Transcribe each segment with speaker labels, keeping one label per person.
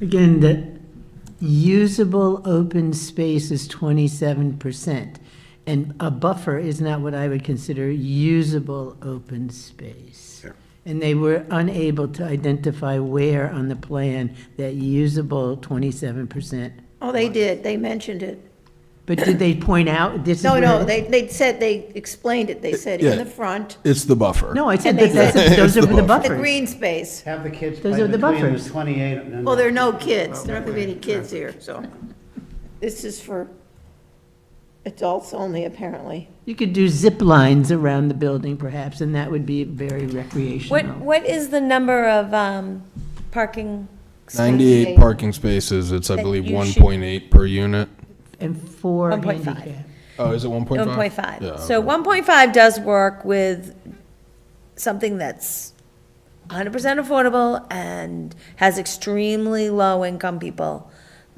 Speaker 1: Again, the usable open space is twenty-seven percent, and a buffer is not what I would consider usable open space.
Speaker 2: Yeah.
Speaker 1: And they were unable to identify where on the plan that usable twenty-seven percent.
Speaker 3: Oh, they did, they mentioned it.
Speaker 1: But did they point out this is
Speaker 3: No,
Speaker 1: where?
Speaker 3: no, they, they said, they explained it, they said in
Speaker 2: Yeah.
Speaker 3: the front,
Speaker 2: It's the buffer.
Speaker 1: No, I said
Speaker 3: And they
Speaker 1: that, that's,
Speaker 2: said-
Speaker 1: those are
Speaker 2: It's the
Speaker 1: the
Speaker 3: the
Speaker 1: buffers.
Speaker 3: green space.
Speaker 4: Have the kids
Speaker 1: Those
Speaker 4: play
Speaker 1: are the
Speaker 4: between
Speaker 1: buffers.
Speaker 4: the 28 and...
Speaker 3: Well, there are no kids, there aren't gonna be any kids here, so. This is for adults only, apparently.
Speaker 1: You could do zip lines around the building perhaps, and that would be very
Speaker 5: What,
Speaker 1: recreational.
Speaker 5: what is the number of um, parking? spaces?
Speaker 2: 98 parking spaces, it's, I
Speaker 5: That
Speaker 2: believe,
Speaker 5: you should-
Speaker 2: 1.8 per unit.
Speaker 1: And four
Speaker 5: 1.5.
Speaker 1: handicap.
Speaker 2: Oh, is it 1.5?
Speaker 5: 1.5.
Speaker 2: Yeah,
Speaker 5: So
Speaker 2: okay.
Speaker 5: 1.5 does work with something that's 100% affordable and has extremely low-income people,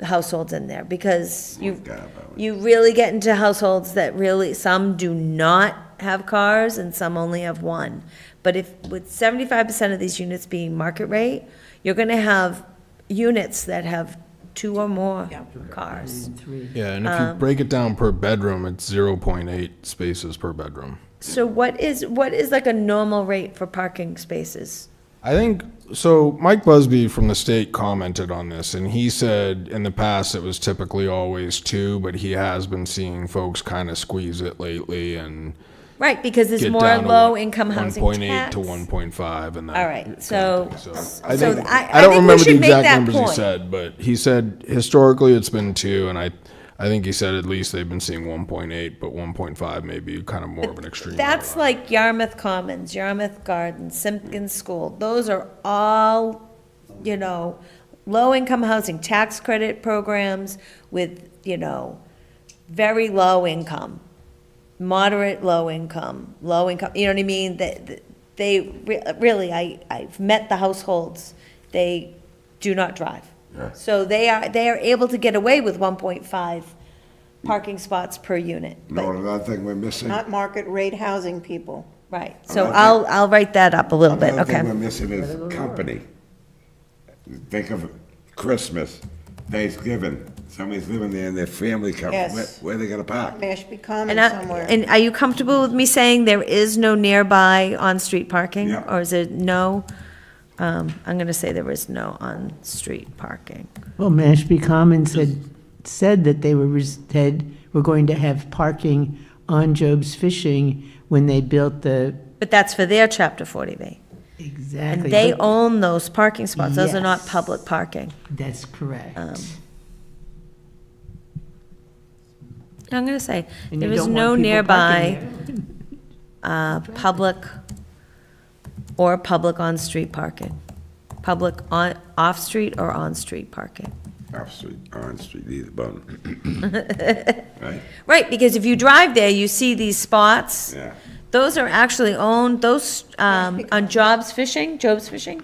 Speaker 5: households in there, because you, you really get into households that really, some do not have cars and some only have one. But if, with 75% of these units being market rate, you're going to have units that have two or more cars.
Speaker 2: Yeah, and if
Speaker 5: um,
Speaker 2: you break it down per bedroom, it's 0.8 spaces per bedroom.
Speaker 5: So what is, what is like a normal rate for parking spaces?
Speaker 2: I think, so Mike Busby from the state commented on this, and he said in the past it was typically always two, but he has been seeing folks kind of squeeze it lately and
Speaker 5: Right, because there's
Speaker 2: get
Speaker 5: more
Speaker 2: down to
Speaker 5: low-income
Speaker 2: one-
Speaker 5: housing
Speaker 2: 1.8
Speaker 5: tax.
Speaker 2: to 1.5 and that.
Speaker 5: All right,
Speaker 2: kind
Speaker 5: so,
Speaker 2: of
Speaker 5: so
Speaker 2: thing,
Speaker 5: I, I
Speaker 2: think- I don't
Speaker 5: think we
Speaker 2: remember the
Speaker 5: should make
Speaker 2: exact
Speaker 5: that
Speaker 2: numbers he
Speaker 5: point.
Speaker 2: said, but he said historically it's been two, and I, I think he said at least they've been seeing 1.8, but 1.5 may be kind of more of an extreme.
Speaker 5: That's like Yarmouth Commons, Yarmouth Gardens, Simpkins School, those are all, you know, low-income housing tax credit programs with, you know, very low income, moderate low income, low income, you know what I mean? That, that- they, re- really, I, I've met the households, they do not drive. So they are, they are able to get away with one point five parking spots per unit, but
Speaker 6: No, another thing we're missing.
Speaker 3: Not market rate housing people.
Speaker 5: Right, so
Speaker 6: Okay.
Speaker 5: I'll, I'll write that up a little bit,
Speaker 6: Another thing we're
Speaker 5: okay.
Speaker 6: missing is company. Think of Christmas, Thanksgiving, somebody's living there and their family comes.
Speaker 3: Yes.
Speaker 6: Where- Where are they gonna park?
Speaker 3: Mashpee Commons
Speaker 5: And, I-
Speaker 3: somewhere.
Speaker 5: and are you comfortable with me saying there is no nearby on-street parking?
Speaker 6: Yeah.
Speaker 5: Or is it no? Um, I'm gonna say there is no on-street parking.
Speaker 1: Well, Mashpee Commons had said that they were, res- had, were going to have parking on Job's Fishing when they built the,
Speaker 5: But that's for their chapter forty B. And
Speaker 1: exactly.
Speaker 5: they
Speaker 1: but-
Speaker 5: own those parking spots, those are not
Speaker 1: Yes.
Speaker 5: public parking.
Speaker 1: That's correct.
Speaker 5: um, I'm gonna say,
Speaker 1: And
Speaker 5: there
Speaker 1: you
Speaker 5: is
Speaker 1: don't want
Speaker 5: no
Speaker 1: people parking
Speaker 5: nearby, uh, public or public on-street parking. Public on, off-street or on-street parking.
Speaker 6: Off street, on street, either one. Right,
Speaker 5: Right, because if you drive there, you see these spots.
Speaker 6: yeah.
Speaker 5: Those are actually owned, those, um, on Jobs Fishing, Jobs Fishing,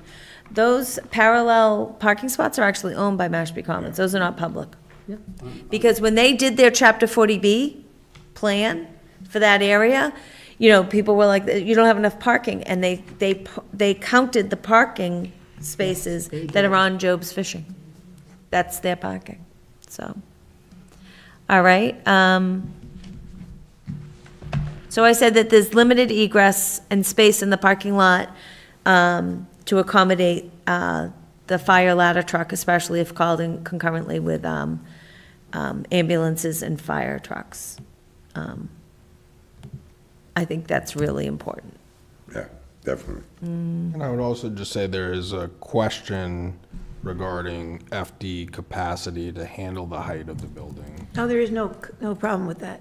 Speaker 5: those parallel parking spots are actually owned by Mashpee Commons. Those are not public. Because when they did their chapter forty B plan for that area, you know, people were like, you don't have enough parking, and they, they, pu- they counted the parking spaces that are on Job's Fishing. That's their parking, so. All right, um, so I said that there's limited egress and space in the parking lot, um, to accommodate, uh, the fire ladder truck, especially if called in concurrently with, um, um, ambulances and fire trucks. Um, I think that's really important.
Speaker 6: Yeah, definitely.
Speaker 2: And I would also just say there is a question regarding FD capacity to handle the height of the building.
Speaker 3: No, Oh, there is no, no problem with that.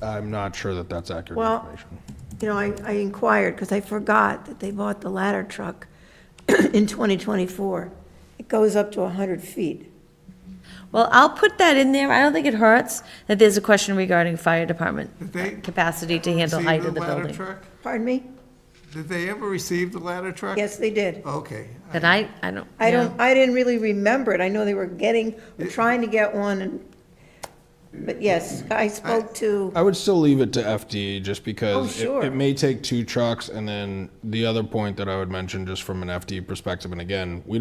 Speaker 2: I'm not sure that that's accurate
Speaker 3: Well-
Speaker 2: information.
Speaker 3: You know, I, I inquired, because I forgot that they bought the ladder truck in 2024. It goes up to 100 feet.
Speaker 5: Well, I'll put that in there. I don't think it hurts that there's a question regarding fire department
Speaker 7: they
Speaker 5: capacity to handle
Speaker 7: receive
Speaker 5: height of the
Speaker 7: ladder
Speaker 5: building.
Speaker 7: truck?
Speaker 3: Pardon me?
Speaker 7: Did they ever receive the ladder
Speaker 5: Uh.
Speaker 7: truck?
Speaker 3: Yes, they did.
Speaker 7: Okay. I-
Speaker 5: That I, I don't.
Speaker 3: I
Speaker 5: know.
Speaker 3: don't, I didn't really remember it. I know they were getting, trying to get one, and, but yes, I spoke to,
Speaker 2: I would still leave it to FD just
Speaker 5: Oh,
Speaker 2: because it-
Speaker 3: sure.
Speaker 2: it, may take two trucks. And then the other point that I would mention, just from an FD perspective, and again, we